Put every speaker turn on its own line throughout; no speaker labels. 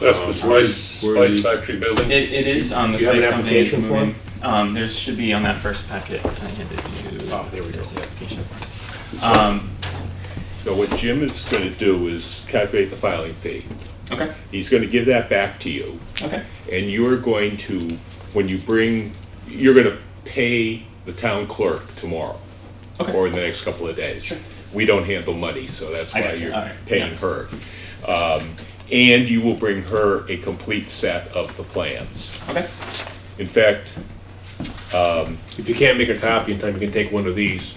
That's
Um,
the Spice,
Where are
Spice
you-
Factory building.
It, it is, um, the
You have an
Spice Company is
application form?
moving. Um, there should be on that first packet, can I hand it to you?
Oh, there we go.
There's the application form. Um,
So what Jim is gonna do is calculate the filing fee.
okay,
He's gonna give that back to you,
okay,
and you're going to, when you bring, you're gonna pay the town clerk tomorrow, or
okay,
in the next couple of days. We don't handle money, so that's
I
why
gotcha,
you're
alright,
paying
yeah.
her. Um, And you will bring her a complete set of the plans.
okay,
In fact, um,
If you can't make a copy in time, you can take one of these.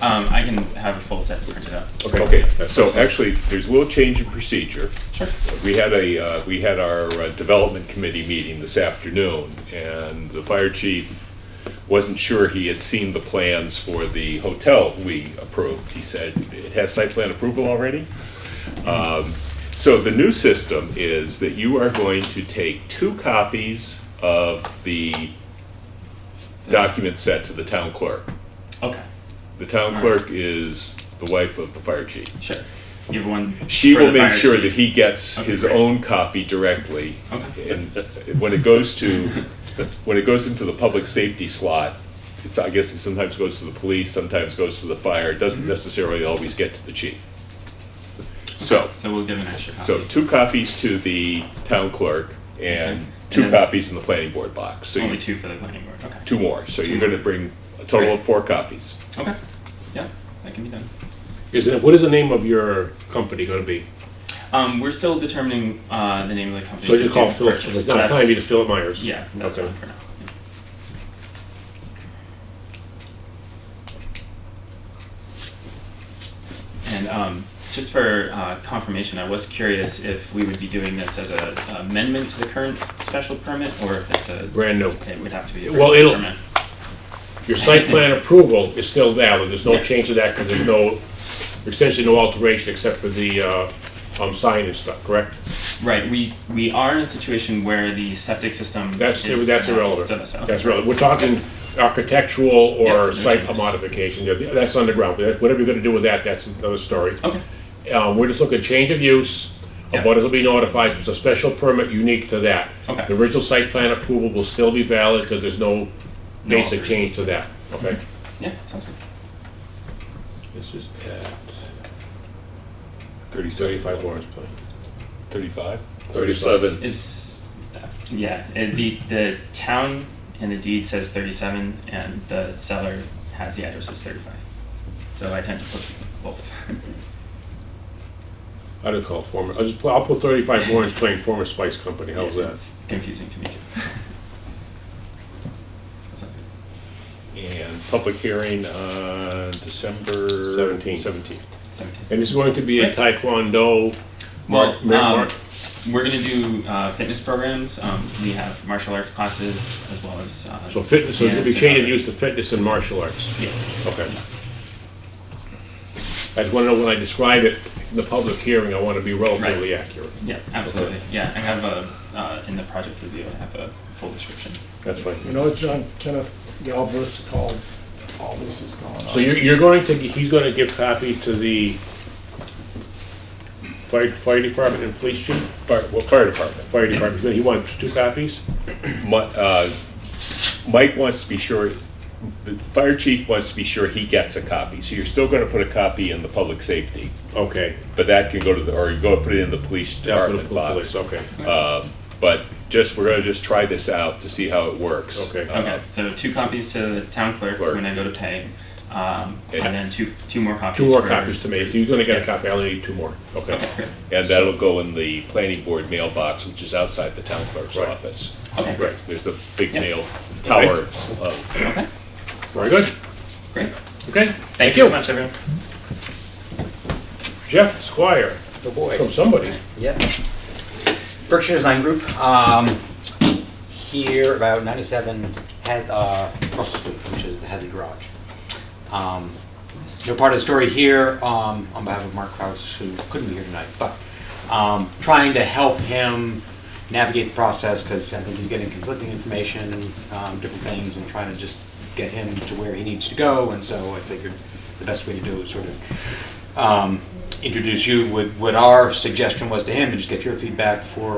um, I can have a full set printed up.
okay, so actually, there's a little change in procedure.
Sure,
We had a, uh, we had our uh, development committee meeting this afternoon, and the fire chief wasn't sure he had seen the plans for the hotel we approved. He said, it has site plan approval already? Um, So the new system is that you are going to take two copies of the document set to the town clerk.
okay,
The town clerk is the wife of the fire chief.
sure. Give one.
She
for
will
the
make
fire
sure
chief.
that he gets
Okay,
his
great.
own copy directly.
Okay.
And when it goes to, when it goes into the public safety slot, it's, I guess it sometimes goes to the police, sometimes goes to the fire, it doesn't necessarily always get to the chief. So,
So we'll give an extra copy.
so two copies to the town clerk and
Okay.
two
And then-
copies in the planning board box. So
Only
you,
two for the planning board, okay.
two more, so you're gonna bring a total of four copies.
Okay, yeah, that can be done.
Is it, what is the name of your company gonna be?
Um, we're still determining, uh, the name of the company.
So I just
to
call
do
Philip,
purchase.
it's not
That's-
time, you just Philip Myers.
Yeah, that's
Okay.
fine for now. yeah. And um, just for uh, confirmation, I was curious if we would be doing this as a amendment to the current special permit, or if it's a,
Brand new.
it would have to be a
Well,
permanent
it'll-
permit.
Your site plan approval is still valid, there's no
Yeah.
change to that, because there's no, essentially no alteration except for the, uh, um, sign and stuff, correct?
Right, we, we are in a situation where the septic system
That's,
is
that's
not
irrelevant.
stood us out.
That's relevant. We're talking architectural or
no
site
changes.
modification, Yeah, that's underground, but whatever you're gonna do with that, that's another story.
Okay,
Uh, we're just looking at change of use,
Yeah.
abutters will be notified, there's a special permit unique to that.
Okay.
The original site plan approval will still be valid, because there's no
No
basic
alteration.
change to that, okay?
yeah, sounds good.
This is at
Thirty-seven.
thirty-five Lawrence Plain.
Thirty-five?
Thirty-seven.
Is, yeah, and the, the town in the deed says thirty-seven and the seller has the address as thirty-five. So I tend to put both.
I just call it former, I'll just, I'll put thirty-five Lawrence Plain, former Spice Company, how's that?
It's confusing to me too. That sounds good.
And public hearing on December?
Seventeenth.
Seventeenth.
Seventeen.
And it's going to be a
Well,
Taekwondo, Mark, Mar-
um,
Mark,
we're gonna do, uh, fitness programs, um, we have martial arts classes as well as, uh.
so fitness, so it'll be
dance and
changing
other-
use to fitness and martial arts.
Yeah,
Okay. I just want to know when I describe it in the public hearing, I want to be relatively accurate.
yeah, absolutely, yeah, I have a, uh, in the project review, I have a full description.
That's
You
fine.
know, John, Kenneth Galbraith called, all this is going on.
So you're, you're going to, he's going to give copy to the fire, fire department and police chief?
Fire, well, fire department.
Fire department, he wants two copies?
Mi- uh, Mike wants to be sure, the fire chief wants to be sure he gets a copy, so you're still gonna put a copy in the public safety,
Okay.
but that can go to the, or you go put it in the police
Yeah, for the
department
pol-
box.
police, okay.
Uh,
Um, But just, we're gonna just try this out to see how it works.
Okay.
Uh,
Okay, so two copies to the town clerk
Clerk.
when I go to pay, um,
And-
and then two, two more copies.
Two more
for-
copies to me, if he's going to get a copy, I only need two more.
Okay,
Okay.
great.
And that'll go in the planning board mailbox, which is outside the town clerk's
Right.
office.
Okay, great,
Right.
There's a big
Yeah.
mail tower. uh,
okay,
Very good.
great.
Okay.
Thank you very much, everyone.
Jeff Squire,
Oh boy.
from somebody.
Yep. Berkshire Design Group, um, here about ninety-seven had, uh, Russell Street, which is the Hadley Garage. Um, so part of the story here, um, on behalf of Mark Kraus, who couldn't be here tonight, but, um, trying to help him navigate the process, because I think he's getting conflicting information, um, different things, and trying to just get him to where he needs to go, and so I figured the best way to do it was sort of, um, introduce you with what our suggestion was to him, and just get your feedback for